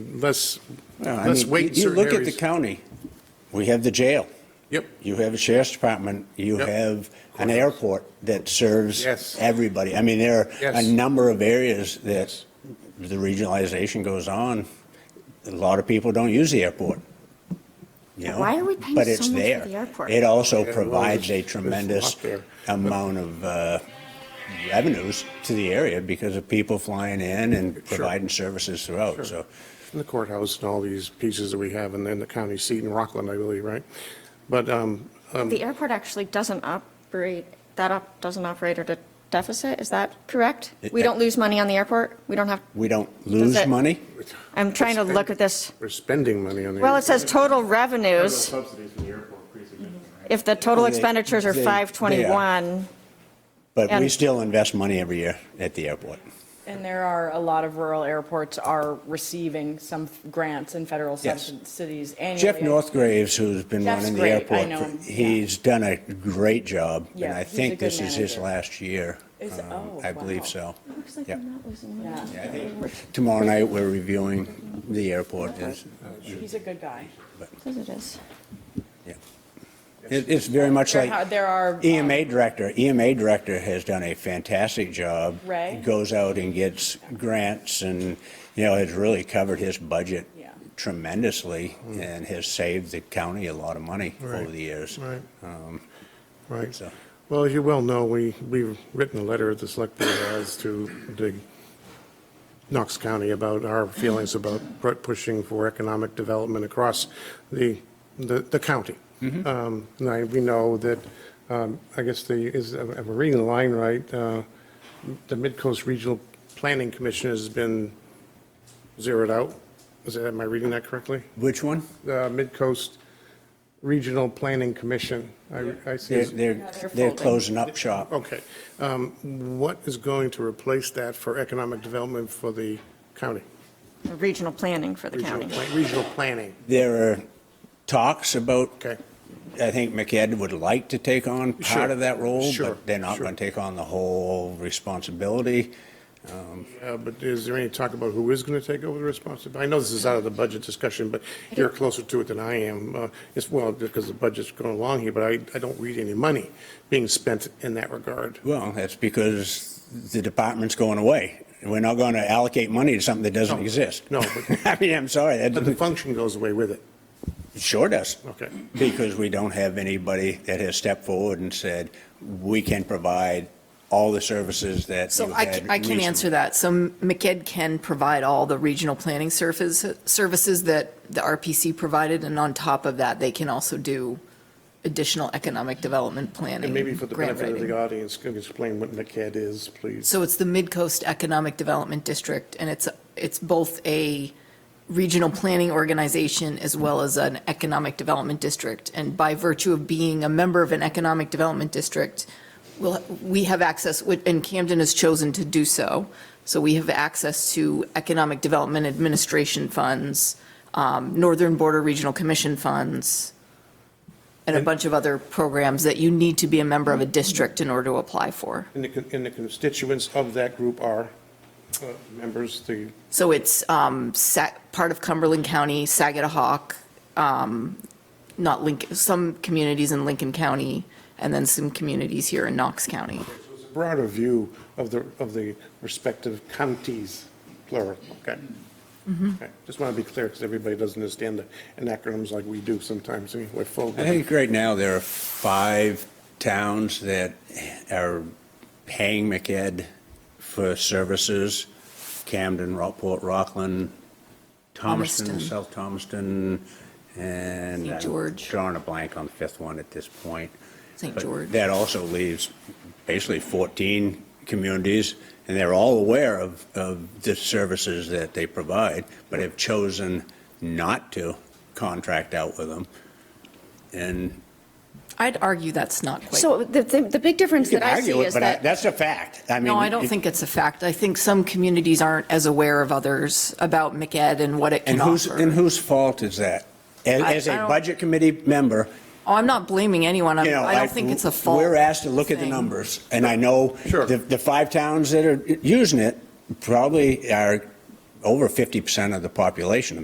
Let's, No, I let's mean, wait in you- certain You look at the areas. county, we have the jail, Yep, you have a sheriff's department, you Yep. have an airport that serves Yes. everybody. I mean, there are a Yes. number of areas that Yes. the regionalization goes on. A lot of people don't use the airport. you know, Why are we paying but so it's much for there. the airport? It also well, provides there's- a there's a lot tremendous there. amount of uh, revenues to the area because of people flying in and Sure. providing services throughout, so. in the courthouse and all these pieces that we have, and then the county seat in Rockland, I believe, right? But, um, The airport actually doesn't operate, that op, doesn't operate at a deficit, is that correct? We don't lose money on the airport? We don't have, We don't lose it- money? I'm trying to look at this. we're spending money on the. Well, it says total Federal revenues. Subsidies from the airport, pretty significant, right? If the total They- expenditures are they- they are. 521, But we And- still invest money every year at the airport. And there are, a lot of rural airports are receiving some grants and federal Yes. subsidies annually. Jeff Northgraves, who's been Jeff's running the great. I airport, know for- him. Yeah. he's done a great job, and Yeah, I he's a think good this is his manager. last year. Is- um, oh, I believe wow. so. looks like Yeah. we're not losing money. Yeah. Tomorrow night, we're reviewing the airport. It's- He's a good guy. Says it is. yeah. It- It's very much There are- like There are. um, EMA E director. EMA director has done a fantastic job. Ray? Goes out and gets grants and, you know, has really covered his budget Yeah. tremendously and has saved the county a lot of money Hmm. Right. over the years. Right, Um, right. So- Well, as you well know, we, we've written a letter to the select board as to the Knox County about our feelings about pu- pushing for economic development across the, the the county. Um, And I, we know that, um, I guess the, is, am I reading the line right? Uh, The Midcoast Regional Planning Commission has been zeroed out. Is that, am I reading that correctly? Which one? The Midcoast Regional Planning Commission. I, I see. They're, they're, they're they're folding. closing up shop. Okay. Um, What is going to replace that for economic development for the county? Regional planning for the Regional county. plan- Regional planning, There are talks about, okay. I think McEd would like to take on Sure. part of that role, Sure. but they're not Sure. going to take on the whole responsibility. Uh, But is there any talk about who is going to take over the responsibility? I know this is out of the budget discussion, but you're closer to it than I am. Uh, It's, well, because the budget's going along here, but I, I don't read any money being spent in that regard. Well, that's because the department's going away. We're not going to allocate money to something that doesn't No. exist. No, but- I mean, I'm sorry, that But the function goes away with it. sure does. Okay. Because we don't have anybody that has stepped forward and said, we can provide all the services that So you I, had ca- I can reasonable- answer that. So MCED can provide all the regional planning surface, services that the RPC provided, and on top of that, they can also do additional economic development planning. And maybe for the grant benefit of writing. the audience, can you explain what NCAD is, please? So it's the Midcoast Economic Development District, and it's, it's both a regional planning organization as well as an economic development district. And by virtue of being a member of an economic development district, we'll, we have access, and Camden has chosen to do so. So we have access to economic development administration funds, um, Northern Border Regional Commission funds, and a bunch of other programs that you need to be a member of a district in order to apply for. And the, con- and the constituents of that group are uh, members, the, So it's um, Sa- part of Cumberland County, Saginaw, um, not Lincoln, some communities in Lincoln County, and then some communities here in Knox County. broader view of the, of the respective counties, plural, okay? Okay. Just want to be clear, because everybody doesn't understand the acronyms like we do sometimes, and we're full. I think right now there are five towns that are paying MCED for services. Camden, Rockport, Rockland, Thomaston, Thomaston. South Thomaston, and. St. I'm George. Drawing a blank on the fifth one at this point. St. But George. That also leaves basically 14 communities, and they're all aware of, of the services that they provide, but have chosen not to contract out with them. And I'd argue that's not quite. So the, the the big difference You that can I see argue it, is but I- that. that's a fact. I mean. No, I don't it- think it's a fact. I think some communities aren't as aware of others about MCED and what it can And whose, offer. and whose fault is that? As, I- as I a don't- budget committee member, Oh, I'm not blaming anyone. I'm- you know. I don't think it's a fault. We're asked to look at the thing. numbers, and I know Sure. the, the five towns that are using it probably are over 50% of the population